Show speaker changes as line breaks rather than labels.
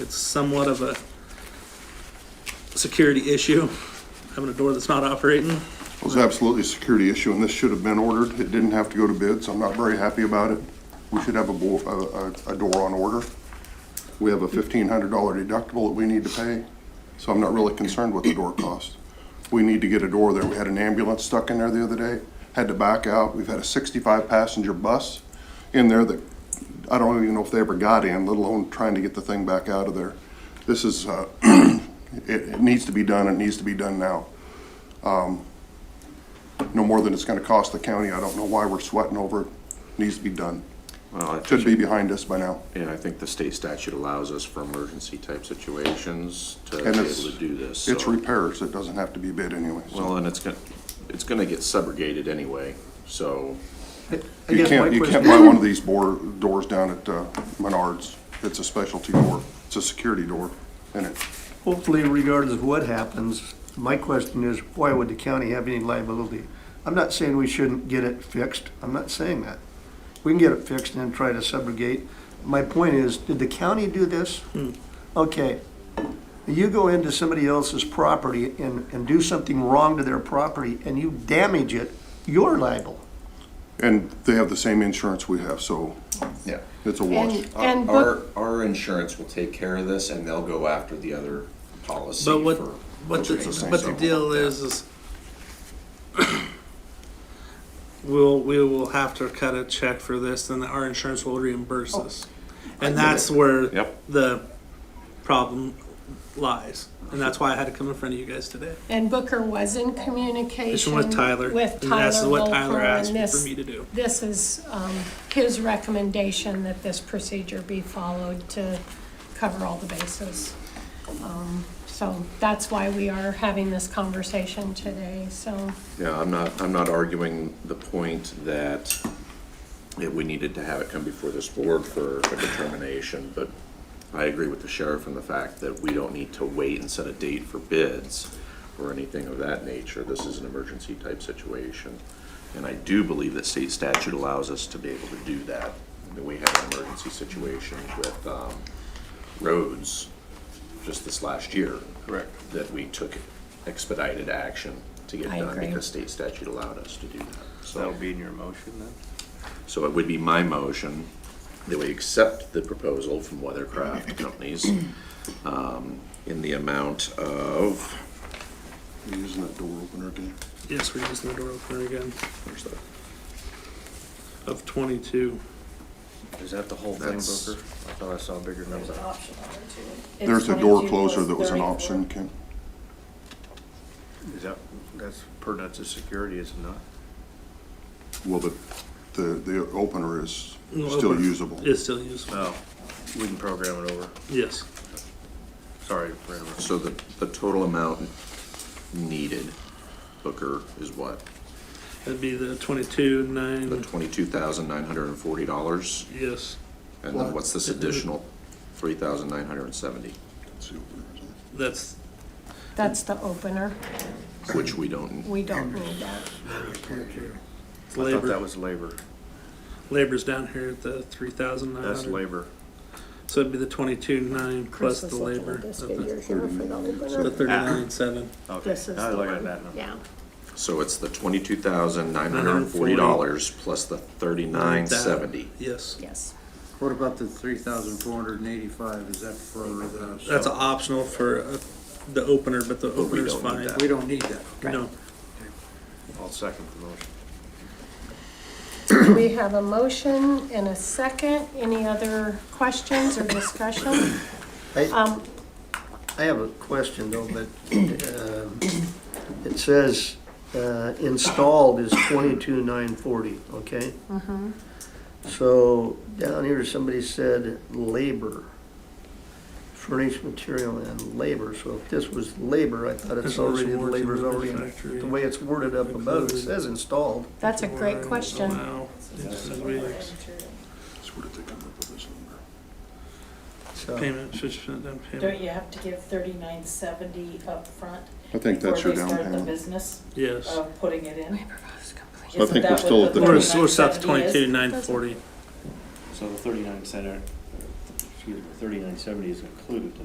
It's somewhat of a security issue, having a door that's not operating.
It was absolutely a security issue, and this should have been ordered. It didn't have to go to bids. I'm not very happy about it. We should have a, bo- a, a- a door on order. We have a fifteen hundred dollar deductible that we need to pay, so I'm not really concerned with the door cost. We need to get a door there. We had an ambulance stuck in there the other day, had to back out. We've had a sixty-five passenger bus in there that, I don't even know if they ever got in, let alone trying to get the thing back out of there. This is, uh, it, it needs to be done. It needs to be done now no more than it's gonna cost the county. I don't know why we're sweating over it. Needs to be done.
Well, I
Should
think,
be behind us by now.
Uh, and I think the state statute allows us for emergency type situations to be
And
able
it's-
to do this.
It's
so-
repairs. It doesn't have to be bid anyway. so.
Well, and it's gonna, it's gonna get subrogated anyway, so,
I
You
guess my
can't, you can't
question,
buy one of these bor doors down at uh, Menards. It's a specialty door. It's a security door, and it,
hopefully regardless of what happens, my question is, why would the county have any liability? I'm not saying we shouldn't get it fixed, I'm not saying that. We can get it fixed and then try to subrogate. My point is, did the county do this? Okay, you go into somebody else's property and, and do something wrong to their property and you damage it, you're liable.
and they have the same insurance we have, so
Yeah.
it's a wash.
And-
Our,
And
our-
what,
our insurance will take care of this and they'll go after the other policy
But what,
for.
what
for
the,
things
but the
like
deal
that.
is, is we'll, we will have to cut a check for this and our insurance will reimburse
Oh,
us. And that's where
Yep.
the problem lies. And that's why I had to come in front of you guys today.
and Booker was in communication.
This one with Tyler.
With
And that's
Tyler
what
Volker,
Tyler
and
asked me-
this-
for me to do.
This is, um, his recommendation that this procedure be followed to cover all the bases. Um, So that's why we are having this conversation today, so.
yeah, I'm not, I'm not arguing the point that that we needed to have it come before this board for a determination, but I agree with the sheriff in the fact that we don't need to wait and set a date for bids or anything of that nature. This is an emergency type situation. And I do believe that state statute allows us to be able to do that. I mean, We had an emergency situation with um, roads just this last year. Correct. That we took expedited action to get
I
done
agree.
because state statute allowed us to do that. So
That'll be in your motion then?
so it would be my motion that we accept the proposal from Weathercraft Companies um, in the amount of,
You're Using that door opener again.
Yes, we're using the door opener again
where's that?
of twenty-two.
Is that the whole thing, Booker? I
That's-
thought I saw a bigger number.
There's a door closer that was an option, Ken.
Is that, that's pertinent to security, is it not?
Well, but the, the opener is
No,
still
opener.
usable.
It's still usable,
No, we can program it over.
yes.
Sorry to program it.
So the, the total amount needed, Booker, is what?
That'd be the twenty-two,
The
nine,
twenty-two thousand nine hundred and forty dollars?
yes.
And then what's this additional three thousand nine hundred and seventy,
It's the opener, isn't it?
That's,
That's the opener.
which we don't,
We don't need that.
it's
I thought that
labor,
was labor.
labor's down here at the three thousand nine
That's
hundred.
labor.
So it'd be the twenty-two, nine plus
Chris
the
is looking
labor
at
of
this
the,
figure here for the
the
opener.
thirty-nine, seven.
Okay,
This is
I
the
was looking
one,
at that number.
yeah.
so it's the twenty-two thousand nine hundred and forty dollars plus the thirty-nine seventy.
Yes,
Yes.
What about the three thousand four hundred and eighty-five, is that for the?
that's optional for uh, the opener, but the
we
opener's
don't need
fine.
that.
We don't need that.
No,
I'll second the motion.
We have a motion and a second. Any other questions or discussion? Um,
I have a question though, but um, it says uh, installed is twenty-two nine forty, okay? So down here, somebody said labor, furnished material and labor. So if this was labor, I thought it's
There's always
already, the
warranty
labor's
with
already,
the
in-
factory.
the way it's worded up above, it says installed.
That's a great question.
Allow instant readings.
That's where did they come up with this number?
So
Payment, fifty percent down
Don't
payment,
you have to give thirty-nine seventy upfront?
I think that's your down
Before they start the
payment.
business
yes.
Oh.
of putting it in?
I think we're still at the
We're, we're south of twenty-two, nine forty.
So the thirty-nine center, excuse me, thirty-nine seventy is included